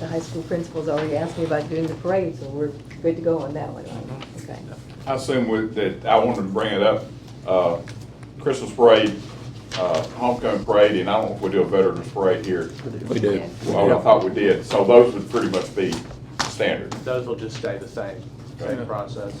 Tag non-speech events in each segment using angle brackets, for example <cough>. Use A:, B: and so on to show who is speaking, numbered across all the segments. A: the high school principal's already asked me about doing the parade, so we're good to go on that one,
B: Mhm.
A: okay?
C: I assume with- that, I wanted to bring it up, uh, Christmas parade, uh, homecoming parade, and I don't know if we do a veterans parade here.
D: We do.
C: Well, I thought we did, so those would pretty much be standard.
B: Those will just stay the same, same process.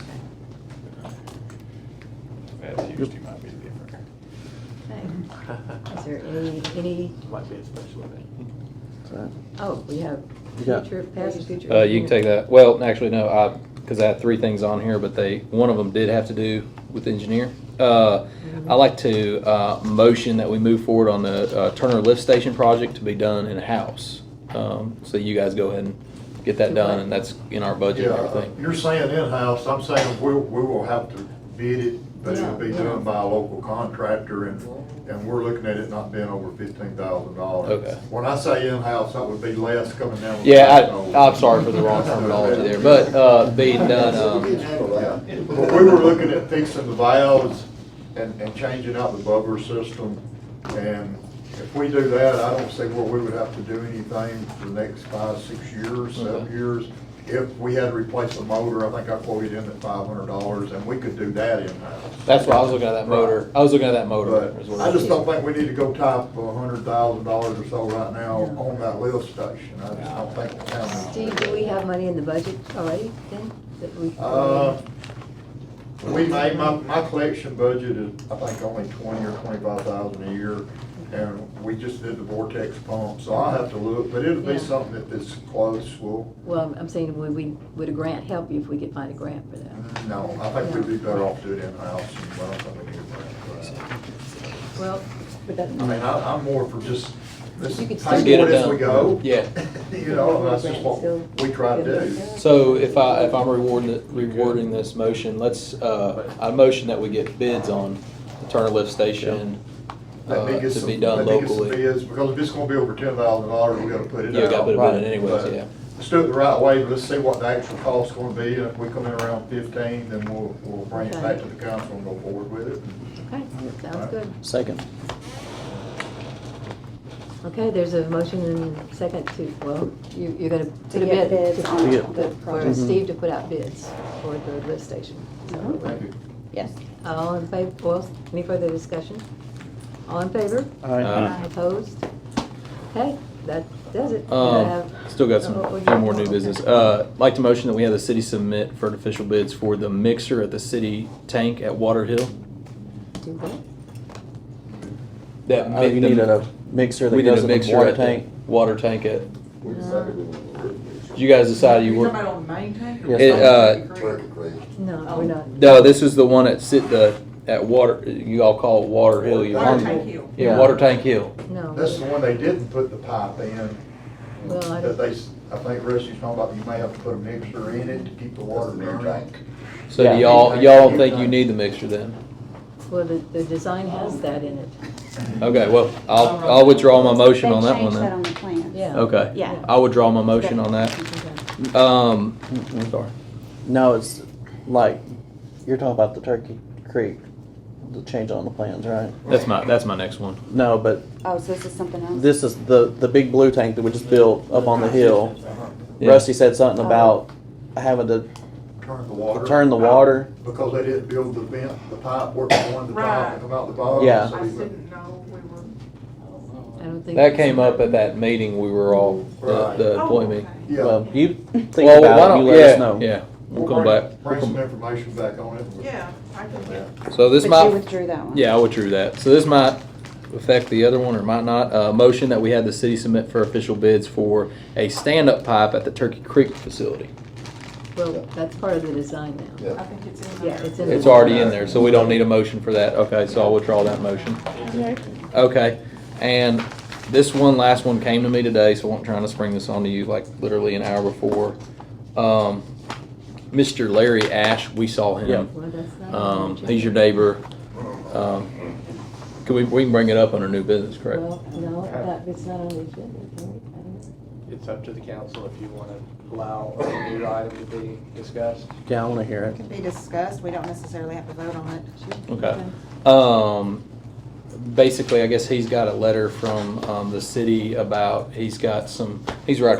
C: That Tuesday might be different.
A: Okay. Is there any, any,
B: Might be a special event.
A: oh, we have
D: Yeah.
A: future, past, future.
D: Uh, you can take that, well, actually, no, I, because I had three things on here, but they, one of them did have to do with engineer. Uh, I like to, uh, motion that we move forward on the uh, Turner Lift Station project to be done in-house. Um, so you guys go ahead and get that done, and that's in our budget and
E: Yeah,
D: everything.
E: You're saying in-house, I'm saying we, we will have to bid it, but it'll be
A: Yeah, yeah.
E: done by a local contractor and, and we're looking at it not being over fifteen thousand dollars.
D: Okay.
E: When I say in-house, that would be less coming down. with
D: Yeah,
E: the-
D: I, I'm sorry for the wrong terminology there, but, uh, being done, um,
E: Yeah. But we were looking at fixing the valves and, and changing out the bubbler system. And if we do that, I don't see where we would have to do anything for the next five, six years, seven
D: Okay.
E: years. If we had to replace the motor, I think I quoted in at five hundred dollars, and we could do that in-house.
D: that's why I was looking at that motor, I was looking at that motor. is
E: But
D: what
E: I just don't think we need to go top of a hundred thousand dollars or so right now on that lift station. I just don't think the town needs to do
A: Steve,
E: that.
A: do we have money in the budget already then? that we-
E: Uh, We made, my, my collection budget is, I think, only twenty or twenty-five thousand a year, and we just did the vortex pump, so I'll have to look, but it'll
A: Yeah.
E: be something that is close, well,
A: Well, I'm- I'm saying, would we, would a grant help you if we could find a grant for that?
E: no, I think we'd be better off doing it in-house, and I don't think we need a grant for
A: Well, but
E: that. uh, I mean,
A: that,
E: I, I'm more for just, this,
A: You
E: pay
A: could
E: for
A: still-
E: it as we go.
D: Yeah.
E: <laughs> You know, that's just what we try to do.
D: So if I, if I'm rewarding, it- rewarding this motion, let's, uh, I motion that we get bids on the Turner Lift Station
E: Let me
D: uh,
E: get
D: to
E: some-
D: be done
E: let me get some
D: locally.
E: bids, Because if it's gonna be over ten thousand dollars, we gotta put it out.
D: Yeah, we gotta put a bid in
E: Right.
D: anyways,
E: But
D: yeah.
E: Let's do it the right way, but let's see what the actual cost's gonna be, and if we come in around fifteen, then we'll, we'll bring it back to the council and go forward with it.
A: okay, sounds good.
D: Second.
A: Okay, there's a motion and second to, well, you, you're gonna put
F: To
A: a
F: get
A: bid.
F: bids on
D: Yeah.
F: the
A: For
D: Mm-hmm.
F: project.
A: Steve to put out bids for the lift station. So,
F: Mm-hmm.
E: Thank you.
F: Yes.
A: All in favor, well, any further discussion? All in favor?
D: Aye.
A: Opposed? Okay, that does it. Do I
D: Um,
A: have-
D: still got some,
A: Oh, oh,
D: few more new
A: okay.
D: business. Uh, like to motion that we have the city submit for official bids for the mixer at the city tank at Water Hill.
A: Do what?
D: That
G: Oh, you
D: mi- the-
G: need a mixer that
D: we did Uh, a
G: goes in the
D: mixer
G: water
D: at the
G: tank?
D: Water tank at,
H: We decided we were.
D: you guys decided you
H: You're
D: were.
H: talking about on Main Tank?
G: Yes,
D: It, uh,
H: Turkey Creek.
A: No,
F: Oh.
A: we're not.
D: No, this is the one at sit, the, at Water, you all call it Water Hill. you-
H: Water Tank Hill.
D: Yeah, Water Tank Hill.
A: No.
E: That's the one they didn't put the pipe in,
A: Well, I
E: that
A: don't,
E: they, s- I think Rusty's talking about, you may have to put a mixer in it to keep the water
H: That's the main
E: running.
H: tank.
D: So
G: Yeah.
D: do y'all, y'all don't think you need the mixture then?
A: well, the, the design has that in it.
D: Okay, well, I'll, I'll withdraw my motion on that one
F: They changed that on
D: then.
F: the plan.
A: Yeah.
D: Okay.
F: Yeah.
D: I'll withdraw my motion on that.
A: Okay.
D: Um, sorry.
G: No, it's like, you're talking about the Turkey Creek, the change on the plans, right?
D: That's my, that's my next one.
G: No, but
F: Oh, so this is something else?
G: this is the, the big blue tank that we just built up on the hill.
D: Yeah.
G: Rusty said something about having to
E: Turn the water.
G: turn the water.
E: Because they didn't build the vent, the pipe work from one to the top and come out the bottom.
G: Yeah.
E: so
H: I
E: we
H: just
E: went-
H: didn't know we were.
A: I don't think.
D: That came up at that meeting we were all, the, the
H: Oh,
D: employee
H: okay.
D: meeting.
E: Yeah.
G: Well, you think
D: Well, why
G: about it,
D: don't-
G: you let us
D: yeah,
G: know.
D: Yeah, we'll come
E: bring-
D: back.
E: Bring some information back on it.
H: Yeah, I can get.
D: So this
F: But you
D: might,
F: withdrew that one.
D: yeah, I withdrew that. So this might affect the other one or might not. Uh, motion that we had the city submit for official bids for a stand-up pipe at the Turkey Creek facility.
A: Well, that's part of the design now.
H: I think it's in there.
A: Yeah, it's in.
D: It's already in there, so we don't need a motion for that. Okay, so I'll withdraw that motion. Okay, and this one, last one came to me today, so I'm trying to spring this on to you like literally an hour before. Um, Mr. Larry Ash, we saw him.
A: Well, that's not. on
D: Um,
A: the
D: he's your
A: agenda.
D: neighbor. Um, can we, we can bring it up under new business, correct?
A: Well, no, that, it's not on the agenda. can we? I don't know.
B: It's up to the council if you want to allow a new item to be discussed.
G: Yeah, I wanna hear it.
I: can be discussed, we don't necessarily have to vote on it.
D: Okay. Um, basically, I guess he's got a letter from, um, the city about, he's got some, he's right